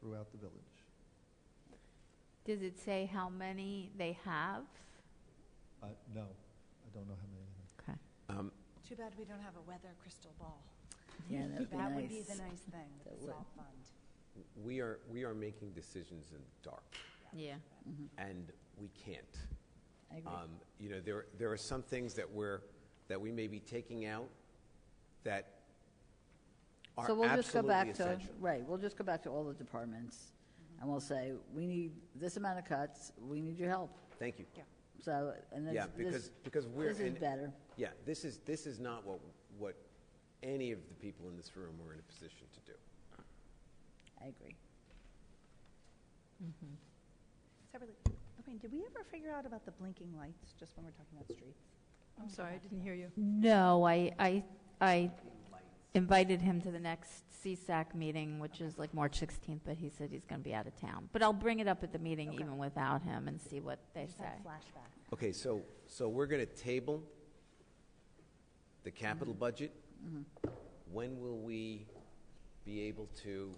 throughout the village. Does it say how many they have? Uh, no, I don't know how many. Okay. Um, Too bad we don't have a weather crystal ball. Yeah, that would be That would be the nice. nice thing, That the would. salt fund. We are, we are making decisions in the dark, Yeah. and we can't. I agree. Um, You know, there, there are some things that we're, that we may be taking out that are So we'll just go absolutely back to, essential. right, we'll just go back to all the departments, Mm-hmm. and we'll say, we need this amount of cuts, we need your help. Thank you. Yeah. So, and Yeah, this, because, this, because we're. this is in- better. Yeah, this is, this is not what, what any of the people in this room were in a position to do. I agree. Separately, Lorraine, did we ever figure out about the blinking lights, just when we're talking about streets? Oh I'm sorry, I didn't hear you. No, I, I, I invited him to the next CSAC meeting, which is like March 16th, but he said he's going to be out of town. But I'll bring it up at the meeting Okay. even without him and see what they Just say. had a flashback. Okay, so, so we're going to table the Mm-hmm. capital budget. When will we be able to,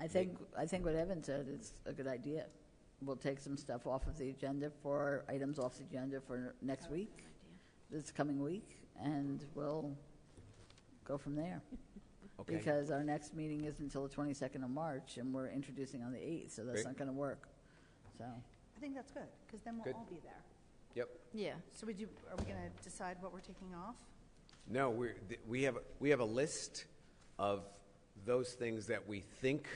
I think, I think what Evan said is a good idea. We'll take some stuff off of the agenda for, items off the agenda for next week, this coming week, and we'll go from there. okay? Because our next meeting is until the 22nd of March, and we're introducing on the 8th, so that's Great. not going to work. So, I think that's good, because then Good. we'll all be there. Yep. Yeah. So we do, are we going to decide what we're taking off? No, we're, th- we have, we have a list of those things that we think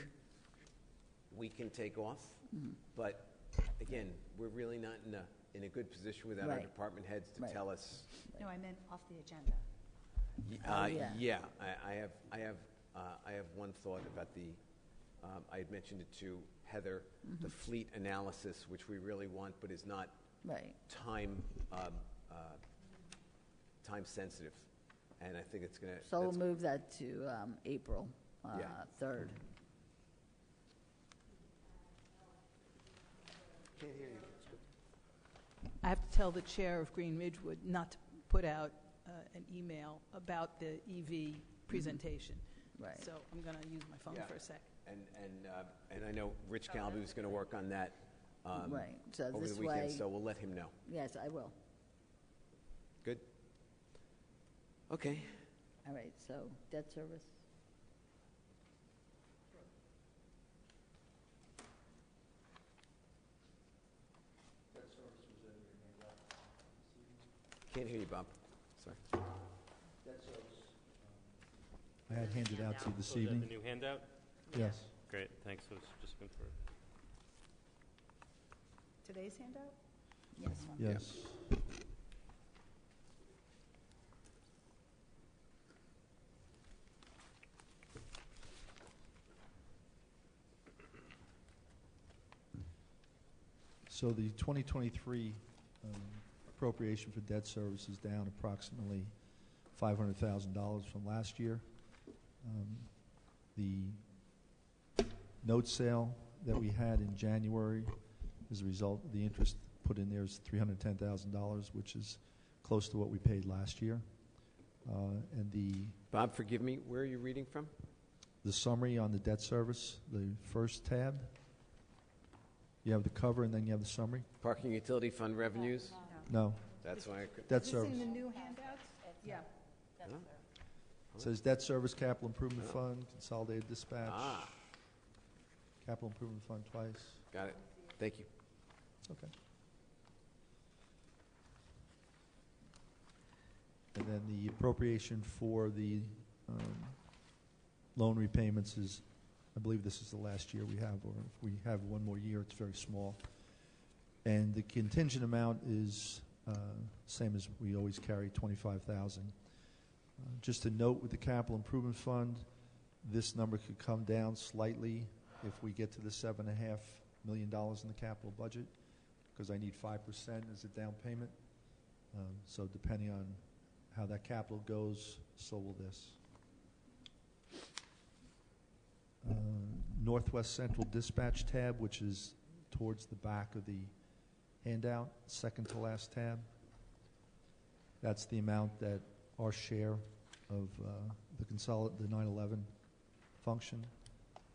we can take off. Mm-hmm. But again, we're really not in a, in a good position without our Right. department heads to Right. tell us. No, I meant off the agenda. Y- Oh, uh, yeah. Yeah, I, I have, I have, uh, I have one thought about the, um, I had mentioned it to Heather, Mm-hmm. the fleet analysis, which we really want, but is not right. time, um, uh, time sensitive. And I think it's gonna. So we'll that's- move that to um, April uh, Yeah. 3rd. I have to tell the chair of Green Ridgewood not to put out uh, an email about the EV presentation. Right. So I'm going to use my phone Yeah. for a sec. And, and, uh, and I know Rich Galbi was gonna work on that, um, Right, so over this the weekend, way, so we'll let him know. yes, I will. Good? Okay. All right, so debt service, Can't hear you, Bob. Sorry. I had handed out to you this Oh, is um, that evening. the new handout? Yes. Great, thanks, I was just going through. it. Today's handout? yes, one. Yes. So the 2023 um, appropriation for debt service is down approximately $500,000 from last year. Um, The note sale that we had in January as a result, the interest put in there is $310,000, which is close to what we paid last year. Uh, And the, Bob, forgive me, where are you reading from? the summary on the debt service, the first tab, you have the cover and then you have the summary? Oh. Parking utility fund revenues? No, That's why I could. debt Is this service. in the new handouts? Yeah. Huh? It Says debt service, capital improvement fund, consolidated dispatch, Ah, capital improvement fund twice. got it. Thank you. Okay. And then the appropriation for the um, loan repayments is, I believe this is the last year we have, or if we have one more year, it's very small. And the contingent amount is uh, same as we always carry, 25,000. Uh, Just a note with the capital improvement fund, this number could come down slightly if we get to the seven and a half million dollars in the capital budget, because I need five percent as a down payment. Um, So depending on how that capital goes, so will this. Uh, Northwest Central Dispatch tab, which is towards the back of the handout, second to last tab. That's the amount that our share of uh, the consol the nine eleven function